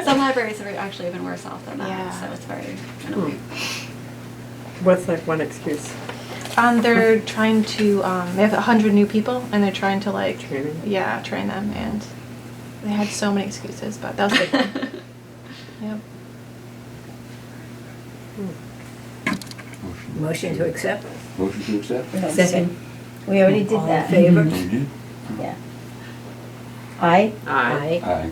Some libraries are actually even worse off than that, Yeah. so it's very annoying. What's that one excuse? Um, they're trying to. Um, they have hundred new people, and they're trying to like. Training? Yeah, train them, and they had so many excuses, but that was a big one. Yep. Motion to accept? Motion to accept? No, Second. We already did that. All in favor? You did? Yeah. Aye. Aye. Aye.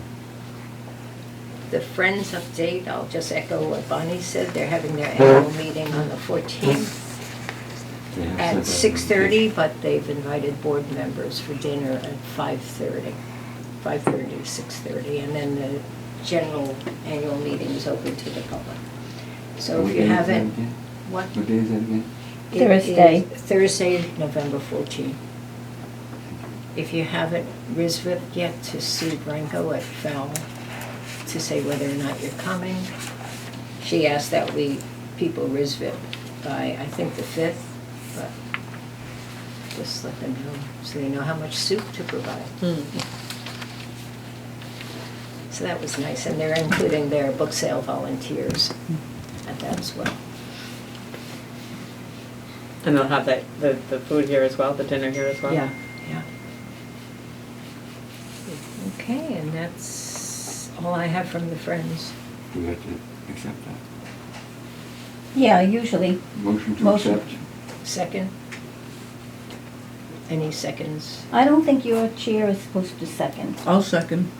The Friends update, I'll just echo what Bonnie said, they're having their annual meeting on the 14th They have at sent out an 6:30, but they've invited board members for dinner at 5:30. 5:30, 6:30, and then the general annual meeting is open to the public. Are So we if you getting that haven't, again? what? What day is that again? It is Thursday. Thursday, November 14th. If you haven't RISVIP yet, to Sue Branco at Val to say whether or not you're coming. She asked that we, people RISVIP by, I think, the 5th, but just let them know, so they know how much soup to provide. Hmm. So that was nice, and they're including their book sale volunteers at that as well. And they'll have that, the, the food here as well, the dinner here as well? Yeah, yeah. Okay, and that's all I have from the friends. Do we have to accept that? Yeah, usually. Motion to Motion. accept? Second? Any seconds? I don't think your chair is supposed to second. I'll second.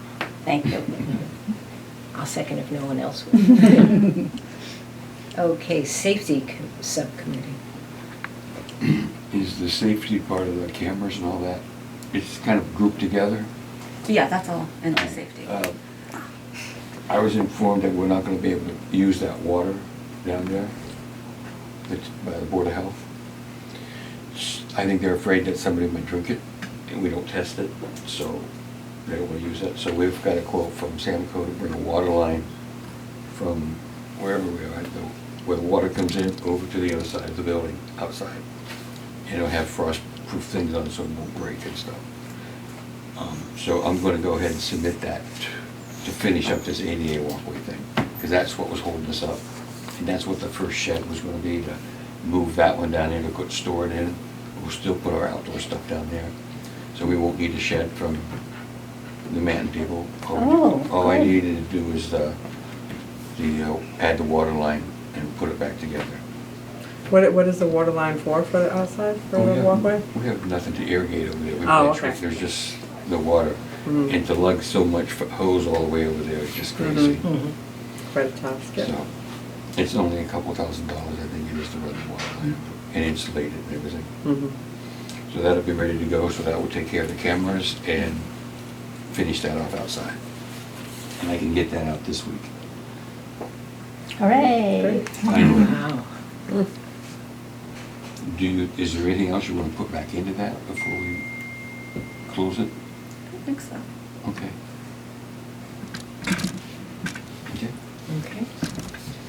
Thank you. I'll second if no one else will. Okay, safety com- subcommittee. Is the safety part of the cameras and all that, it's kind of grouped together? Yeah, that's all, and the safety. Uh, I was informed that we're not gonna be able to use that water down there, that's by the Board of Health. S- I think they're afraid that somebody might drink it, and we don't test it, so they will use it. So we've got a quote from Samco to bring a water line from wherever we are, the- where the water comes in, over to the other side of the building, outside. And it'll have frost-proof things on it, so it won't break and stuff. Um, So I'm gonna go ahead and submit that to finish up this ADA walkway thing, because that's what was holding us up. And that's what the first shed was gonna be, to move that one down there to put, store it in. We'll still put our outdoor stuff down there. So we won't need a shed from the man table. All- Oh, All I good. needed to do is the, the, uh, add the water line and put it back together. What, what is the water line for, for the outside, for We the have- walkway? Oh, We have nothing to irrigate over there. We Oh, can't- okay. There's just the water. Mm. And to lug so much f- hose all the way over there is just Mhm. crazy. Quite a task, yeah. So, it's only a couple thousand dollars, I think, it is to run the water line Mm-hmm. and insulate it and everything. Mhm. So that'll be ready to go, so that will take care of the cameras and finish that off outside. And I can get that out this week. Hooray. Great. Finally. Wow. Do you, is there anything else you want to put back into that before we close it? I think so. Okay. Okay. Okay.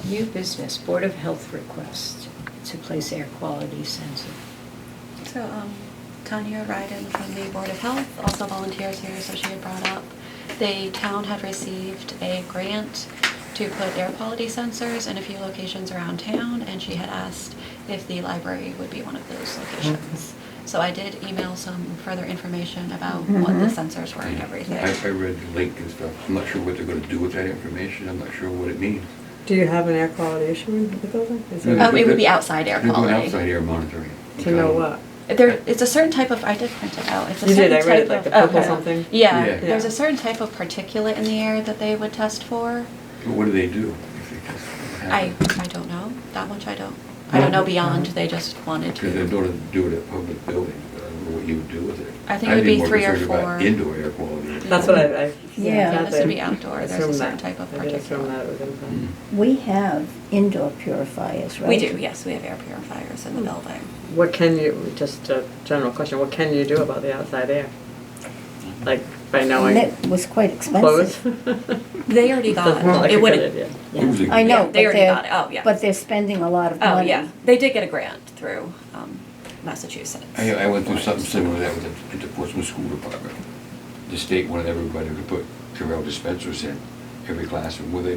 New business, Board of Health request to place air quality sensor. So, um, Tanya Ryden from the Board of Health, also volunteers here, so she had brought up, the town had received a grant to put air quality sensors in a few locations around town, and she had asked if the library would be one of those locations. So I did email some further information about what the Mhm. sensors were and everything. I, I read the link and stuff. I'm not sure what they're gonna do with that information. I'm not sure what it means. Do you have an air quality issue in the building? Is No, it- Um, but it would they're- be outside air they're doing quality. outside air monitoring. To know what? There, it's a certain type of. I did print it out. It's a You did, certain I read it, type like of, the purple okay. something. Yeah, Yeah. there's Yeah. a certain type of particulate in the air that they would test for. But what do they do? if they test what I, happened? I don't know that much. I don't. I don't know beyond. They just wanted Because they're to. gonna do it at public buildings, but I don't know what you would do with it. I think it would I'd be more three or concerned about four. Indoor air quality. That's what I, I. Yeah, thought this that- would be outdoor. There's a assumed certain that. type of I did assume particulate. that it was inside. Mm. We have indoor purifiers, right? Hmm. We do. Yes, we have air purifiers in the building. What can you, just a general question, what can you do about the outside air? Like, by knowing That was quite clothes? expensive. They already got. Doesn't sound like a it good wouldn't. idea. Yeah. Who's it? I know, Yeah, but they they're. already got it. Oh, yeah. But they're spending a lot of Oh money. yeah, they did get a grant through um, Massachusetts. I, I went through something similar to that with the, at the Portsmouth School Department. The state wanted everybody to put Purell dispensers in, every classroom, will they